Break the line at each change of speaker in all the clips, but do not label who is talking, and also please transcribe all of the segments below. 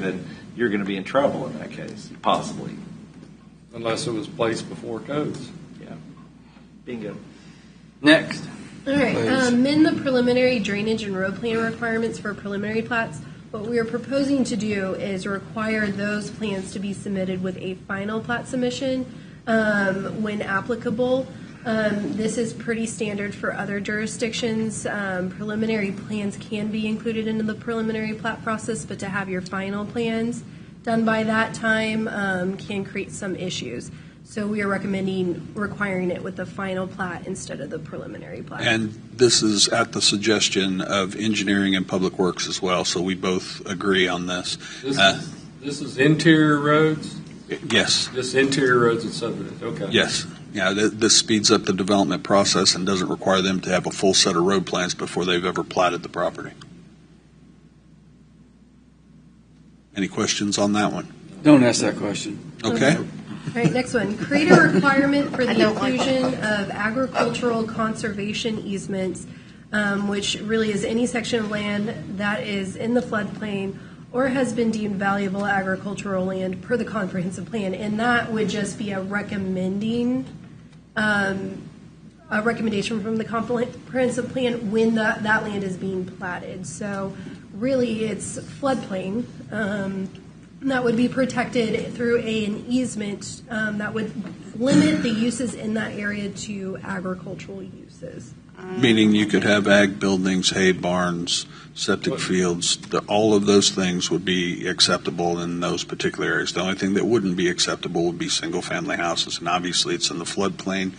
then you're going to be in trouble in that case, possibly.
unless it was placed before codes.
Yeah. Bingo.
Next.
All right,
Please.
um, amend the preliminary drainage and road plan requirements for preliminary plats. What we are proposing to do is require those plans to be submitted with a final plat submission um, when applicable. Um, This is pretty standard for other jurisdictions. Um, Preliminary plans can be included into the preliminary plat process, but to have your final plans done by that time um, can create some issues. So we are recommending requiring it with the final plat instead of the preliminary plat.
And this is at the suggestion of Engineering and Public Works as well, so we both agree on this.
This
Uh.
is, this is interior roads,
Yes,
this interior roads and subdivisions, okay.
yes. Yeah, th- this speeds up the development process and doesn't require them to have a full set of road plans before they've ever platted the property. Any questions on that one?
Don't ask that question.
Okay?
All right, next one. Create a requirement for the inclusion of agricultural conservation easements, um, which really is any section of land that is in the floodplain or has been deemed valuable agricultural land per the comprehensive plan. And that would just be a recommending, um, a recommendation from the comprehensive plan when that, that land is being platted. So really, it's floodplain. um, that would be protected through a- an easement um, that would limit the uses in that area to agricultural uses.
Meaning you could have ag buildings, hay barns, septic fields, the- all of those things would be acceptable in those particular areas. The only thing that wouldn't be acceptable would be single-family houses, and obviously it's in the floodplain,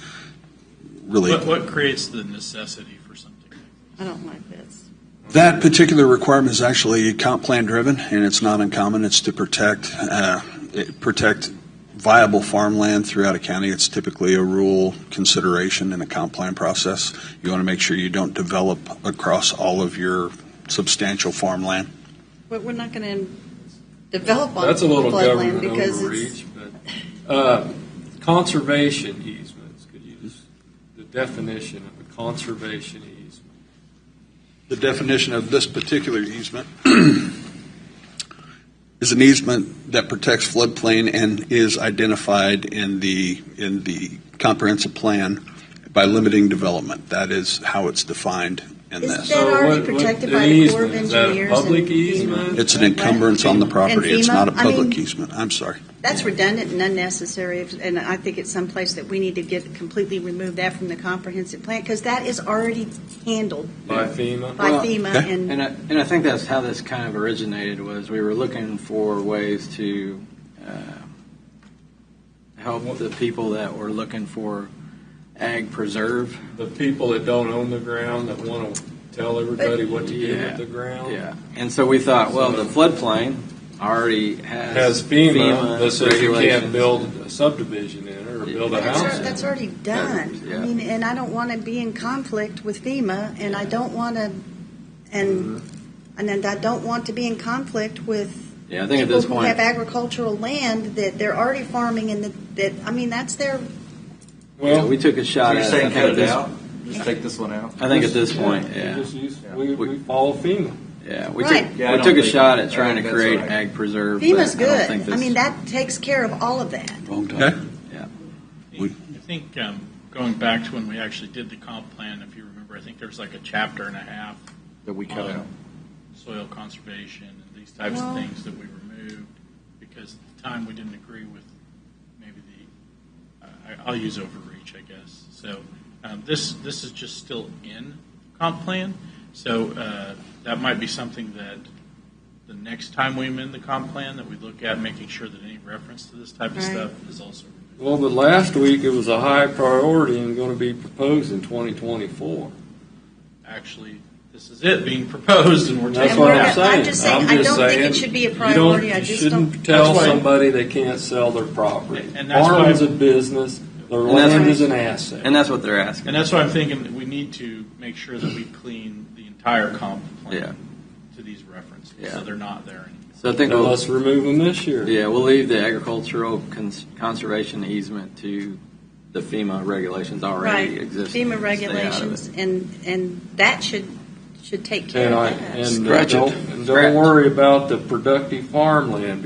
really.
What, what creates the necessity for something?
I don't like this.
That particular requirement is actually comp plan driven, and it's not uncommon. It's to protect, uh, it- protect viable farmland throughout a county. It's typically a rural consideration in a comp plan process. You want to make sure you don't develop across all of your substantial farmland.
But we're not going to develop on
That's a little
floodland
government
because it's,
overreach, but, uh, conservation easements, could you just, the definition of a conservation easement?
The definition of this particular easement is an easement that protects floodplain and is identified in the, in the comprehensive plan by limiting development. That is how it's defined in
Isn't
this.
that
So
already
what- what-
protected
the
by the Corps of
easement, is that a
Engineers and
Public
FEMA?
easement?
It's an encumbrance on the property. It's
FEMA?
not a
I mean-
public easement. I'm sorry.
that's redundant and unnecessary. And I think it's someplace that we need to get, completely remove that from the comprehensive plan because that is already handled
By FEMA?
by
Well,
FEMA
okay.
and
And I, and I think that's how this kind of originated was we were looking for ways to uh, help the people that were looking for ag preserve.
The people that don't own the ground that want to tell everybody what to do
Yeah.
with the ground?
Yeah. And so we thought, well, the floodplain already has,
Has FEMA that says you can't
regulations.
build a subdivision in it or build a
That's,
house
al-
in it.
that's already done.
Yeah.
I mean, and I don't want to be in conflict with FEMA, and I don't want to, and and then I don't want to be in conflict with
Yeah, Mm-hmm. I think at
people
this
who
point,
have agricultural land that they're already farming and that, that I mean, that's their.
yeah,
Well,
we took a shot
So you're
at
saying
I think
cut
at
it
this-
out? Just take this one out?
I think at this
Yeah,
point,
we
yeah.
just use- We,
We-
we follow FEMA.
Yeah, we
Right.
took,
Yeah, I
we
don't
took a
think-
shot at
I
trying
think
to
that's
create
right.
ag preserve. but
FEMA's
I don't
good.
think
I
this-
mean, that takes care of all of that.
Wrong time.
Okay.
I think um, going back to when we actually did the comp plan, if you remember, I think there was like a chapter and a half
That we
cut out. soil conservation and these types
Well-
of things that we removed because at the time we didn't agree with maybe the I, I'll use overreach I guess so um, this this is just still in comp plan so uh, that might be something that the next time we amend the comp plan that we look at making sure that any reference to this type of
Right.
stuff is also
Well, the last week, it was a high priority and going to be proposed in 2024.
actually this is it being proposed and we're
That's
taking
And
what
we're
I'm
not-
saying.
just saying,
I'm
I
just
don't think
saying,
it should be a
you
priority.
don't-
I
you
just
shouldn't
don't.
tell
That's why-
somebody they can't sell their property.
And that's why-
Farming's a business. Their
And that's
land
why-
is an asset.
And that's what they're asking.
And that's why I'm thinking that we need to make sure that we clean the entire comp
Yeah.
plan to these references,
Yeah.
so they're not there anymore.
So I think
Now
we'll-
let's remove them this year.
Yeah, we'll leave the agricultural cons- conservation easement to the FEMA regulations already
Right,
existing.
FEMA
Stay out of it.
regulations, and and that should should take care
And I,
of that.
and uh,
Scratch it.
don't, and Don't worry about the productive farmland